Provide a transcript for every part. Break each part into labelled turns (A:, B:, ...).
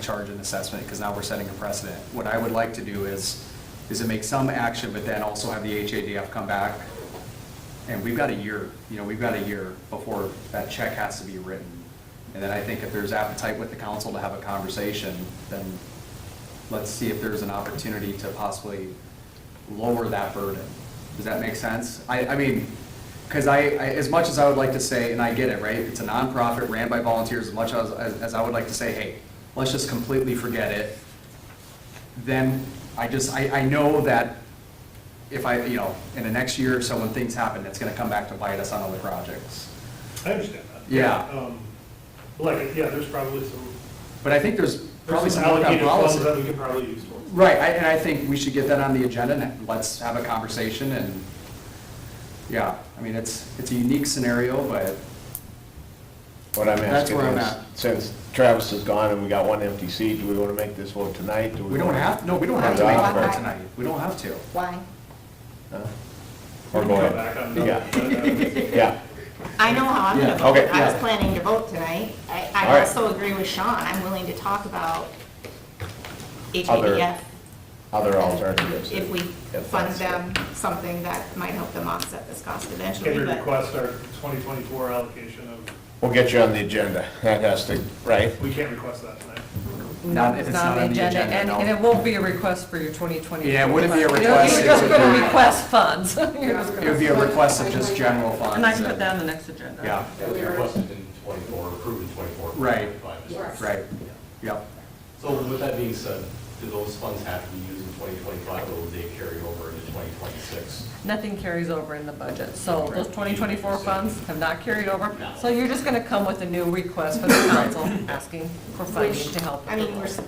A: charge an assessment, because now we're setting a precedent. What I would like to do is, is to make some action, but then also have the HADF come back. And we've got a year, you know, we've got a year before that check has to be written. And then I think if there's appetite with the council to have a conversation, then let's see if there's an opportunity to possibly lower that burden. Does that make sense? I, I mean, because I, I, as much as I would like to say, and I get it, right? It's a nonprofit ran by volunteers, as much as, as as I would like to say, hey, let's just completely forget it. Then I just, I, I know that if I, you know, in the next year or so, when things happen, it's gonna come back to bite us on other projects.
B: I understand that.
A: Yeah.
B: Um, but Like, yeah, there's probably some,
A: But I think there's probably
B: there's
A: some
B: some
A: work on
B: allocated funds
A: policy.
B: that we could probably use towards.
A: Right, I- and I think we should get that on the agenda, and let's have a conversation, and, yeah, I mean, it's, it's a unique scenario, but,
C: What I'm
A: That's
C: asking
A: where I'm
C: is,
A: at.
C: since Travis is gone and we got one empty seat, do we want to make this one tonight? Do
A: we don't
C: wanna-
A: have, no, we don't have to make it
C: Or-
A: vote tonight, we don't have to.
D: Why?
C: Huh?
B: We
C: Or
B: can
C: go
B: come
C: ahead.
B: back on another-
C: Yeah.
B: that- um,
C: Yeah,
D: I know how I'm
A: Yeah,
D: gonna vote.
C: okay,
D: I was
A: yeah.
D: planning to vote tonight. I,
C: All
D: I
C: right.
D: also agree with Sean. I'm willing to talk about
C: Other
D: HADF.
C: other alternatives.
D: If we
C: If
D: fund
C: that's-
D: them something that might help them offset this cost
B: that- Can
D: eventually,
B: we
D: but
B: request our 2024 allocation of,
C: We'll get you on the agenda. That has to, right?
B: we can't request that tonight.
A: Not if it's not on the agenda,
E: And,
A: no.
E: and it won't be a request for your 2020.
A: Yeah, it wouldn't be a
E: You're-
A: request,
E: You're
A: it
E: just
A: would
E: going
A: be-
E: to request funds. You're just
A: It would
E: gonna-
A: be a request of just general funds.
E: And I can put that on the next agenda.
A: Yeah,
F: That was requested in 24, approved in 24.
A: Right.
F: by the district.
A: right, yep.
F: So with that being said, do those funds have to be used in 2025 or will they carry over into 2026?
E: Nothing carries over in the budget, so those 2024 funds have not carried over. So you're just going to come with a new request for the council, asking for funding to help.
D: I mean, we're, s-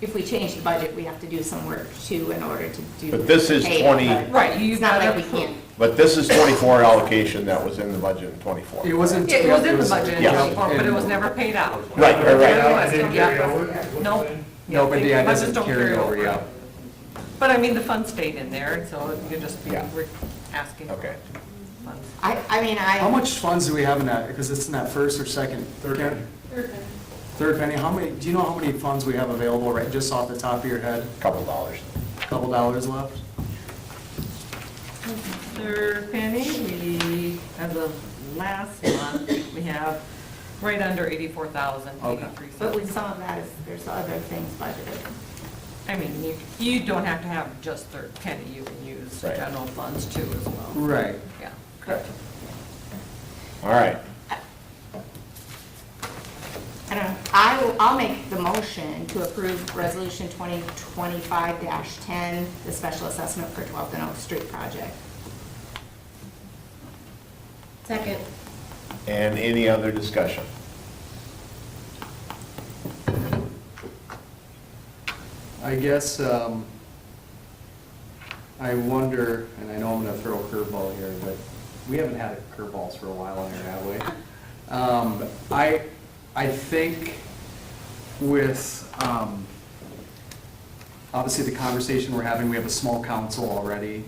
D: if we change the budget, we have to do some work too in order to do.
C: But this is
D: pay it,
C: 20
D: but
E: Right, you-
D: It's not like we
E: you've gotta-
D: can't.
C: But this is 24 allocation that was in the budget in 24.
A: It wasn't.
E: Yeah, It was in the budget, in
C: Yeah.
E: 24, but it was never paid out.
C: Right, right, right.
B: Yeah, I didn't
E: Yeah.
B: carry over, is what
E: Nope.
B: you're saying?
A: No, but yeah, it
E: Budgets
A: doesn't
E: don't
A: carry over, yeah.
E: But I mean, the funds stayed in there, and so you're just be
C: Yeah.
E: re- asking for
C: Okay.
E: funds.
D: I, I mean, I.
A: How much funds do we have in that, because it's in that first or second?
B: Third
A: Karen?
B: penny.
A: Third penny, how many, do you know how many funds we have available, right, just off the top of your head?
C: Couple dollars.
A: Couple dollars left?
E: Third penny, we, as of last month, we have right under eighty-four thousand,
A: Okay.
E: eighty-three
D: But with
E: cents.
D: some of that is, there's other things budgeted.
E: I mean, you, you don't have to have just third penny, you can use
C: Right.
E: general funds too as well.
A: Right.
E: Yeah.
C: Correct. All right.
D: I don't know, I will, I'll make the motion to approve Resolution 2025-10, the special assessment for 12th and Oak Street project. Second.
C: And any other discussion?
A: I guess, um, I wonder, and I know I'm gonna throw a curveball here, but we haven't had curveballs for a while on here, have we? Um, I, I think with, um, obviously the conversation we're having, we have a small council already.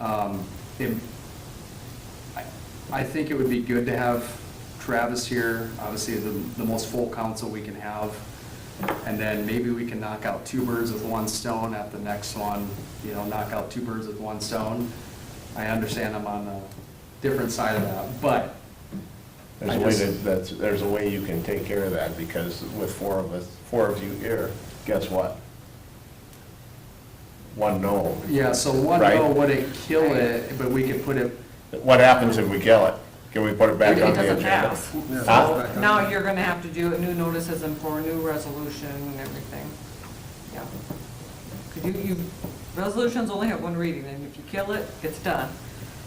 A: Um, it- I- I think it would be good to have Travis here, obviously the, the most full council we can have. And then maybe we can knock out two birds with one stone at the next one, you know, knock out two birds with one stone. I understand I'm on a different side of that, but
C: There's
A: I
C: a way
A: just-
C: to, that's, there's a way you can take care of that, because with four of us, four of you here, guess what? One no.
A: yeah, so one
C: Right.
A: no wouldn't kill it, but we could put it,
C: What happens if we kill it? Can we put it back
E: It- it
C: on the
E: doesn't
C: agenda?
E: pass.
C: Huh?
E: Now you're gonna have to do new notices and for a new resolution and everything. Yeah. Could you, you, resolutions only have one reading, and if you kill it, it's done.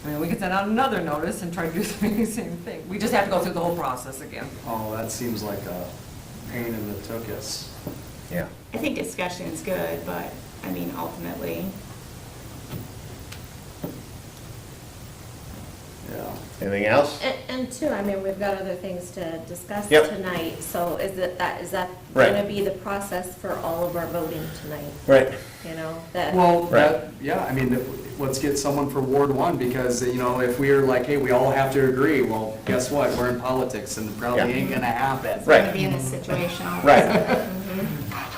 E: I mean, we can send out another notice and try to do the same thing. We just have to go through the whole process again.
A: oh, that seems like a pain in the tuchus.
C: Yeah.
D: I think discussion's good, but, I mean, ultimately,
A: Yeah.
C: Anything else?
G: And, and two, I mean, we've got other things to discuss
C: Yep.
G: tonight, so is it, that, is that
C: Right.
G: gonna be the process for all of our voting tonight?
C: Right.
G: You know, that.
A: Well, that,
C: Right.
A: yeah, I mean, let's get someone for Ward One, because, you know, if we're like, hey, we all have to agree, well, guess what? We're in politics, and it probably
C: Yeah.
A: ain't gonna happen.
D: we're gonna
C: Right.
D: be in this situation. all of a
C: Right.
D: sudden.